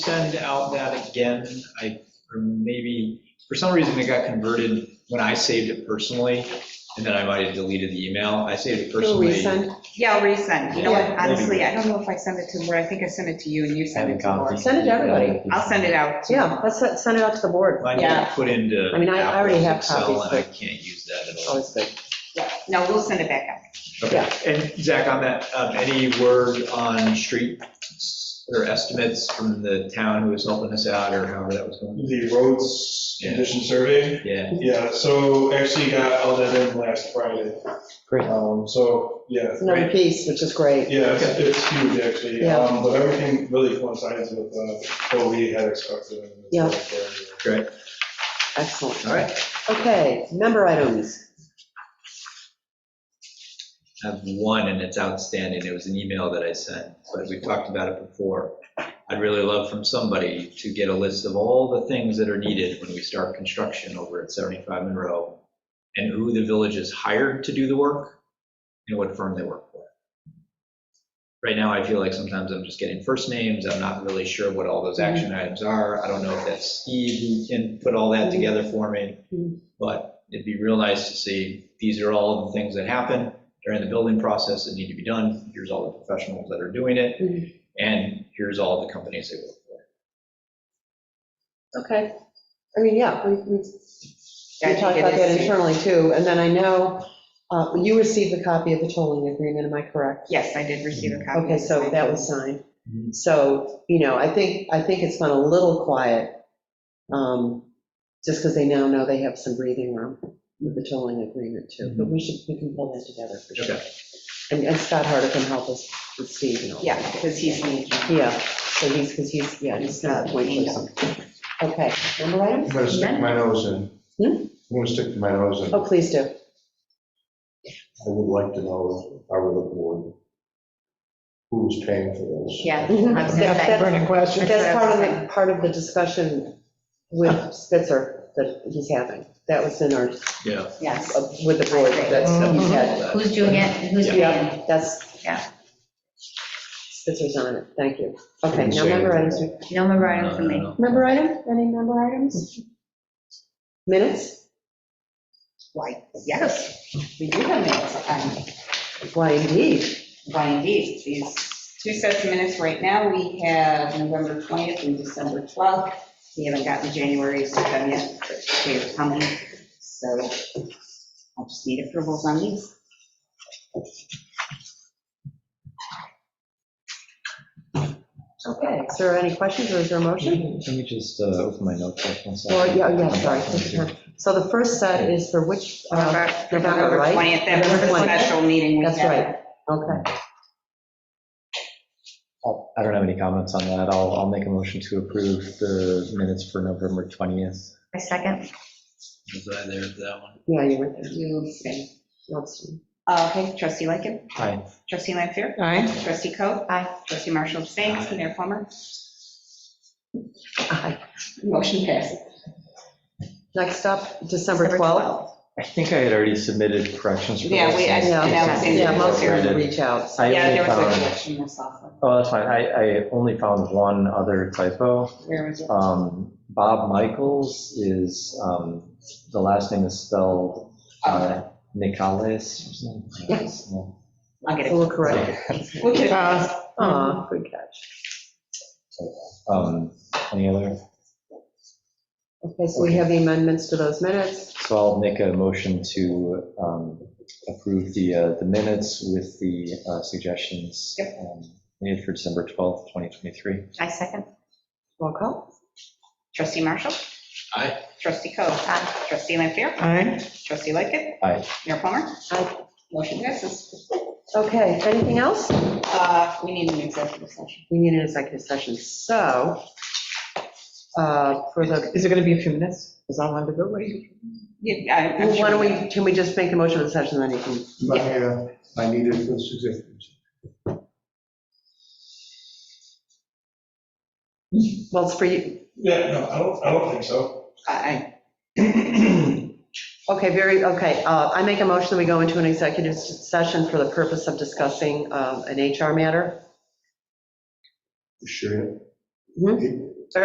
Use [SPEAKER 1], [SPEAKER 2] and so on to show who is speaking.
[SPEAKER 1] send out that again? I, or maybe, for some reason it got converted when I saved it personally, and then I might have deleted the email. I saved it personally.
[SPEAKER 2] resend,
[SPEAKER 3] Yeah, I'll resend. You know what,
[SPEAKER 1] Yeah, maybe.
[SPEAKER 3] honestly, I don't know if I sent it to Laura. I think I sent it to you and you sent it to Laura.
[SPEAKER 2] Send it to everybody.
[SPEAKER 3] I'll send it out.
[SPEAKER 2] yeah, let's se- send it out to the board.
[SPEAKER 1] I need to put into.
[SPEAKER 2] I mean, I- I already
[SPEAKER 1] Apple's
[SPEAKER 2] have
[SPEAKER 1] Excel,
[SPEAKER 2] copies,
[SPEAKER 1] And I
[SPEAKER 2] but-
[SPEAKER 1] can't use that at all.
[SPEAKER 2] Always good.
[SPEAKER 3] No, we'll send it back out.
[SPEAKER 2] Oh,
[SPEAKER 1] Okay, and Zach, on that, um, any word on street or estimates from the town who was helping us out or however that was going?
[SPEAKER 4] The roads condition survey?
[SPEAKER 1] Yeah,
[SPEAKER 4] Yeah, so actually got all that in last Friday.
[SPEAKER 2] Great.
[SPEAKER 4] Um, so, yeah,
[SPEAKER 2] It's another piece, which is great.
[SPEAKER 4] yeah, it's, it's huge actually,
[SPEAKER 2] Yeah.
[SPEAKER 4] um, but everything really coincides with, uh, what we had expected.
[SPEAKER 2] Yeah.
[SPEAKER 1] great,
[SPEAKER 2] Excellent.
[SPEAKER 1] all right.
[SPEAKER 2] Okay, member items.
[SPEAKER 1] I have one and it's outstanding. It was an email that I sent, but we talked about it before. I'd really love from somebody to get a list of all the things that are needed when we start construction over at 75 Monroe and who the village is hired to do the work and what firm they work for. Right now, I feel like sometimes I'm just getting first names. I'm not really sure what all those action items are. I don't know if that's Steve who can put all that together for me.
[SPEAKER 2] Mhm.
[SPEAKER 1] But it'd be real nice to see, these are all the things that happen during the building process that need to be done. Here's all the professionals that are doing it.
[SPEAKER 2] Mhm.
[SPEAKER 1] And here's all the companies they work for.
[SPEAKER 2] Okay. I mean, yeah, we, we
[SPEAKER 3] Yeah,
[SPEAKER 2] we
[SPEAKER 3] I
[SPEAKER 2] talked
[SPEAKER 3] think it
[SPEAKER 2] about that
[SPEAKER 3] is.
[SPEAKER 2] internally too. And then I know, uh, you received a copy of the tolling agreement, am I correct?
[SPEAKER 3] Yes, I did receive a copy.
[SPEAKER 2] Okay, so that was signed.
[SPEAKER 1] Mhm.
[SPEAKER 2] So, you know, I think, I think it's gone a little quiet, um, just because they now know they have some breathing room with the tolling agreement too. But we should, we can pull that together for sure.
[SPEAKER 1] Okay.
[SPEAKER 2] And and Scott Harder can help us with Steve and all.
[SPEAKER 3] Yeah, because he's me.
[SPEAKER 2] Yeah, so he's, because he's, yeah, he's not a point person. Okay, number
[SPEAKER 5] I'm
[SPEAKER 2] items?
[SPEAKER 5] gonna stick my nose in.
[SPEAKER 2] Hmm?
[SPEAKER 5] I'm gonna stick my nose in. I
[SPEAKER 2] Oh, please do.
[SPEAKER 5] would like to know, if I were the board, who's paying for this?
[SPEAKER 3] Yeah.
[SPEAKER 2] Mhm.
[SPEAKER 3] I was gonna
[SPEAKER 2] That-
[SPEAKER 3] say-
[SPEAKER 2] That's that's part of the, part of the discussion with Spitzer that he's having. That was in our,
[SPEAKER 1] Yeah.
[SPEAKER 3] Yes.
[SPEAKER 2] uh, with the board, that's, that we had.
[SPEAKER 6] Who's doing it and who's paying?
[SPEAKER 2] Yeah, that's.
[SPEAKER 3] Mm-hmm. Yeah.
[SPEAKER 2] Spitzer's on it, thank you. Okay,
[SPEAKER 5] Didn't
[SPEAKER 2] now
[SPEAKER 5] say
[SPEAKER 2] member
[SPEAKER 5] anything.
[SPEAKER 2] items.
[SPEAKER 6] No member item
[SPEAKER 1] No,
[SPEAKER 6] for
[SPEAKER 1] no,
[SPEAKER 6] me.
[SPEAKER 1] no.
[SPEAKER 2] Member item, any member items? Minutes?
[SPEAKER 3] Why, yes, we do have minutes. Um,
[SPEAKER 2] Why indeed?
[SPEAKER 3] Why indeed, these two sets of minutes right now, we have November 20th and December 12th. We haven't gotten January's to them yet, but they are coming, so I'll just need approvals on these.
[SPEAKER 2] Okay, is there any questions or is there a motion?
[SPEAKER 7] Let me just uh, open my notebook one
[SPEAKER 2] Or,
[SPEAKER 7] second.
[SPEAKER 2] yeah, oh, yeah, sorry. take your time. So the first set is for which, uh,
[SPEAKER 3] November
[SPEAKER 2] November, right?
[SPEAKER 3] 20th, that was
[SPEAKER 2] November
[SPEAKER 3] a
[SPEAKER 2] 20th.
[SPEAKER 3] special meeting we
[SPEAKER 2] that's
[SPEAKER 3] had.
[SPEAKER 2] right, okay.
[SPEAKER 7] I'll- Oh, I don't have any comments on that. I'll, I'll make a motion to approve the minutes for November 20th.
[SPEAKER 6] A second?
[SPEAKER 1] Was I there for that one?
[SPEAKER 2] Yeah, you were there.
[SPEAKER 3] You abstain.
[SPEAKER 2] That's-
[SPEAKER 3] Uh, Okay, trustee Lightkit,
[SPEAKER 7] Aye.
[SPEAKER 3] trustee Lanfair,
[SPEAKER 2] All right.
[SPEAKER 3] trustee Coe,
[SPEAKER 6] Aye.
[SPEAKER 3] trustee Marshall abstains, Mayor Plummer,
[SPEAKER 2] Aye.
[SPEAKER 3] motion passes.
[SPEAKER 2] Next up, December
[SPEAKER 6] December
[SPEAKER 2] 12th.
[SPEAKER 7] I think I had already submitted corrections for this.
[SPEAKER 3] Yeah, we- I-
[SPEAKER 2] Yeah.
[SPEAKER 3] and that was in-
[SPEAKER 2] Yeah, most
[SPEAKER 7] here.
[SPEAKER 2] of them reach out. so-
[SPEAKER 7] I
[SPEAKER 3] Yeah,
[SPEAKER 7] only
[SPEAKER 3] there was a
[SPEAKER 7] found,
[SPEAKER 3] correction this also.
[SPEAKER 7] oh, that's fine. I, I only found one other typo.
[SPEAKER 3] Where was it?
[SPEAKER 7] Um, Bob Michaels is, um, the last name is spelled uh, Nicolas or something.
[SPEAKER 2] Yes.
[SPEAKER 3] I'll get
[SPEAKER 2] So
[SPEAKER 3] it.
[SPEAKER 2] we're correct.
[SPEAKER 3] We'll get it.
[SPEAKER 2] Uh, Aw, good catch.
[SPEAKER 7] Um, Any other?
[SPEAKER 2] Okay, so we have the amendments to those minutes.
[SPEAKER 7] So I'll make a motion to um, approve the, uh, the minutes with the uh, suggestions um, made for December 12th, 2023.
[SPEAKER 6] I second.
[SPEAKER 2] Roll call.
[SPEAKER 3] Trustee Marshall?
[SPEAKER 1] Aye.
[SPEAKER 3] Trustee Coe? Aye. Trustee Lampier?
[SPEAKER 2] Aye.
[SPEAKER 3] Trustee Lightgev?
[SPEAKER 7] Aye.
[SPEAKER 3] Mayor Plummer?
[SPEAKER 2] Aye.
[SPEAKER 3] Motion passes.
[SPEAKER 2] Okay, anything else?
[SPEAKER 3] Uh, We need an executive session.
[SPEAKER 2] We need an executive session, so uh, for the,
[SPEAKER 8] Is it going to be a few minutes? Is that long to go? What do you-
[SPEAKER 3] Yeah, I- I'm
[SPEAKER 2] why
[SPEAKER 3] sure
[SPEAKER 2] don't we, can we just make a motion of the session, then you can
[SPEAKER 5] My, uh, I needed this executive.
[SPEAKER 2] Well, it's for you,
[SPEAKER 4] Yeah, no, I don't, I don't think so.
[SPEAKER 3] I-
[SPEAKER 2] okay, very, okay, uh, I make a motion that we go into an executive session for the purpose of discussing um, an HR matter.
[SPEAKER 5] Sure.
[SPEAKER 2] Mhm.
[SPEAKER 5] It-